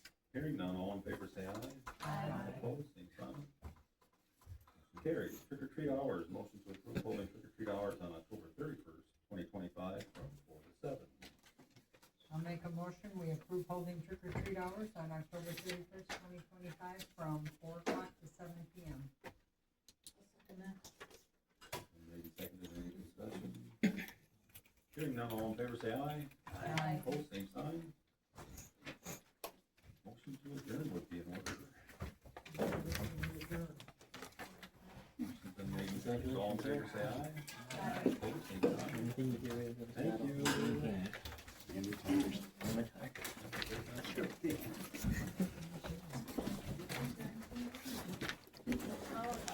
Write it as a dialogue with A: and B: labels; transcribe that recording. A: Hearing none, all in favor say aye. Opposed, same sign. Carried, trick or treat hours, motion to approve holding trick or treat hours on October thirty-first, twenty twenty-five from four to seven.
B: I'll make a motion, we approve holding trick or treat hours on October thirty-first, twenty twenty-five, from four o'clock to seven P M.
A: And maybe seconded, any discussion? Hearing none, all in favor say aye.
B: Aye.
A: Opposed, same sign. Motion to adjourn would be in order. Motion's been made and seconded, all in favor say aye. Opposed, same sign.
C: Anything to get rid of?
A: Thank you.
C: Okay.
D: Every time.